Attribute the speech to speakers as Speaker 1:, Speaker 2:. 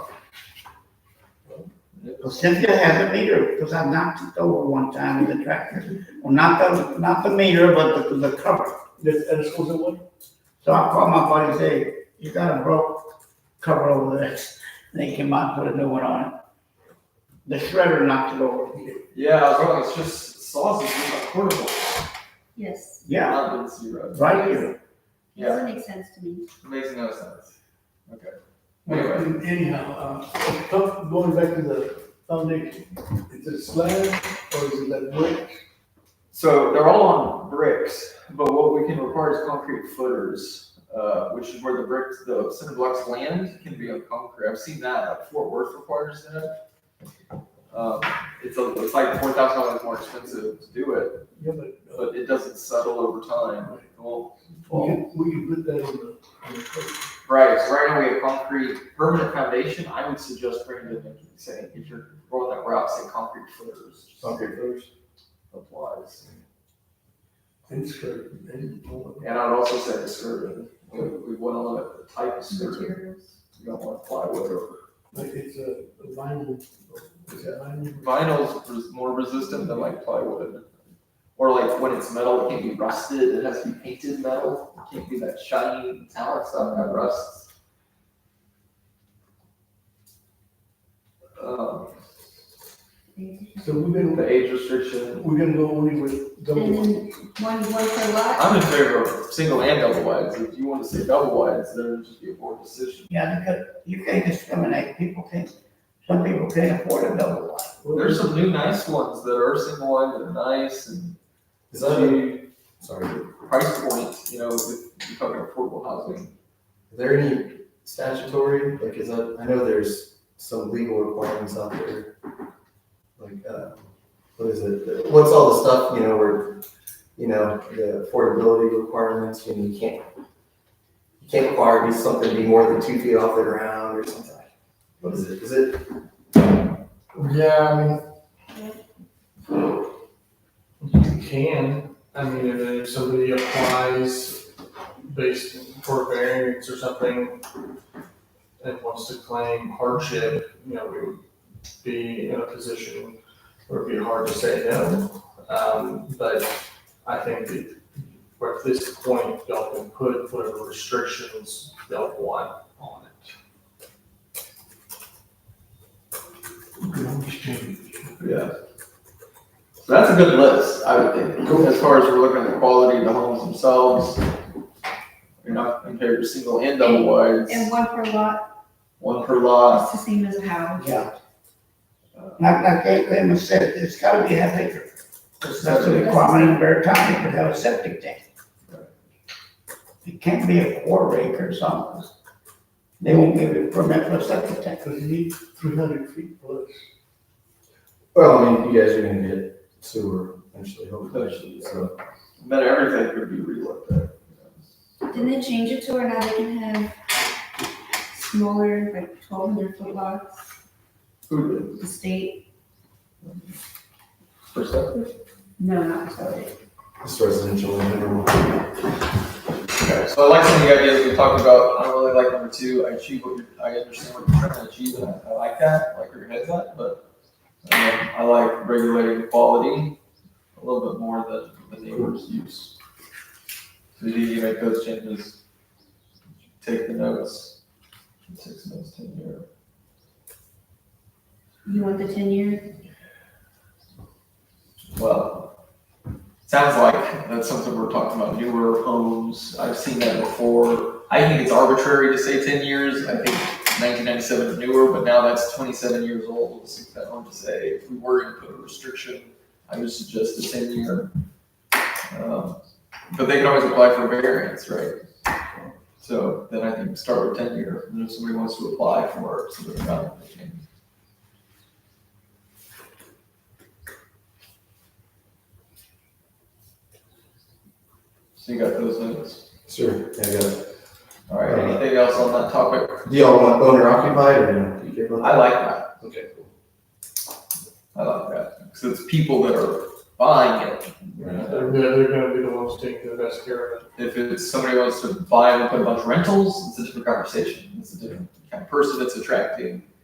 Speaker 1: Well, Cynthia has a meter, because I knocked it over one time with the tractor. Well, not the, not the meter, but the, the cover.
Speaker 2: This, and this was the one?
Speaker 1: So I called my buddy and said, you got a broke cover over there. And they came out and put a new one on it. The shredder knocked it over.
Speaker 3: Yeah, I was wrong. It's just sausage is like portable.
Speaker 4: Yes,
Speaker 1: Yeah,
Speaker 3: Not been zero.
Speaker 1: right here.
Speaker 4: it doesn't make sense to me.
Speaker 3: Makes no sense. Okay. Anyway,
Speaker 2: Anyhow, uh, come- going back to the foundation, is it slab or is it like brick?
Speaker 3: so they're all on bricks, but what we can require is concrete footers, uh, which is where the bricks, the cinder blocks land can be on concrete. I've seen that. Like Fort Worth requires that. Um, it's a, it's like four thousand dollars more expensive to do it,
Speaker 2: Yeah, but uh,
Speaker 3: but it doesn't settle over time. It won't
Speaker 2: we
Speaker 3: fall.
Speaker 2: can, we can put that on the, on the code.
Speaker 3: Right, so right now we have concrete permanent foundation, I would suggest Brandon, if you say, if you're going that route, say concrete footers.
Speaker 2: Concrete
Speaker 3: footers. Applies,
Speaker 2: And skirt, and all of that.
Speaker 3: and I'd also say the skirting, we, we want to limit the type of skirting,
Speaker 4: Materials.
Speaker 3: you don't want plywood or.
Speaker 2: like it's a vinyl, is it vinyl?
Speaker 3: Vinyl's res- more resistant than like plywood, or like when it's metal, it can't be rusted, it has to be painted metal, it can't be that shiny metallic stuff that rusts. Um,
Speaker 2: So we're gonna,
Speaker 3: The age restriction.
Speaker 2: we're gonna go only with
Speaker 4: And
Speaker 2: double.
Speaker 4: then one, one per lot,
Speaker 3: I'm in favor of single and double wides. If you want to say double wides, then it'd just be a board decision.
Speaker 1: Yeah, because you can't discriminate. People can't, some people can't afford a double wide.
Speaker 3: There's some new nice ones that are single wide that are nice and
Speaker 5: Is that a,
Speaker 3: the
Speaker 5: sorry, are
Speaker 3: price point, you know, if you're talking affordable housing.
Speaker 5: there any statutory, like, is that, I know there's some legal requirements out there. Like, uh, what is it, what's all the stuff, you know, where, you know, the affordability requirements, you know, you can't, you can't require it to be something to be more than two feet off the ground or something. What is it, is it,
Speaker 6: Yeah, I mean, you can, I mean, if, if somebody applies based for variance or something and wants to claim hardship, you know, we would be in a position where it'd be hard to say no. Um, but I think that we're at this point, y'all can put whatever restrictions y'all want on it.
Speaker 3: Yeah. So that's a good list, I would think, as far as we're looking at the quality of the homes themselves. You're not in favor of single and double wides,
Speaker 4: and one per lot
Speaker 3: one per lot.
Speaker 4: is the same as a house.
Speaker 1: Yeah. Like, like they, they said, it's gotta be half acre. That's a requirement in Bear County to have a septic tank. It can't be a quarter acre or something. They won't give you a permit for a septic tank.
Speaker 2: Cause you need three hundred feet plus.
Speaker 5: well, I mean, you guys are gonna get sewer eventually, hopefully,
Speaker 3: Eventually,
Speaker 5: so.
Speaker 3: Then everything could be relooked at.
Speaker 4: Didn't they change it to where now they can have smaller, like twelve hundred foot lots,
Speaker 3: Who did?
Speaker 4: the state?
Speaker 3: First up.
Speaker 4: No, not the state.
Speaker 5: It's residential in general.
Speaker 3: Okay, so I like some of the ideas we talked about. I really like number two. I achieve what you're, I understand what you're trying to achieve, and I, I like that. I like where your head's at, but um, I like regulating quality a little bit more than the neighbor's use. So you need to make those changes. Take the notes. Six months, ten year.
Speaker 4: You want the ten year?
Speaker 3: Well, sounds like that's something we're talking about, newer homes, I've seen that before. I think it's arbitrary to say ten years, I think nineteen ninety-seven is newer, but now that's twenty-seven years old, so it's kind of hard to say. If we were gonna put a restriction, I would suggest a ten year. Um, But they can always apply for variance, right? So then I think start with ten year, and if somebody wants to apply for it, somebody got it, they can. So you got those notes.
Speaker 5: Sure, yeah, I got it.
Speaker 3: All right, anything else on that topic?
Speaker 5: Do y'all want owner occupied or no? Do you care about
Speaker 3: I like that.
Speaker 5: that? Okay, cool.
Speaker 3: I like that. Because it's people that are buying it.
Speaker 6: They're, they're gonna be the ones taking the best care of it.
Speaker 3: If it's somebody wants to buy and put a bunch of rentals, it's a different conversation. It's a different kind of person that's attracting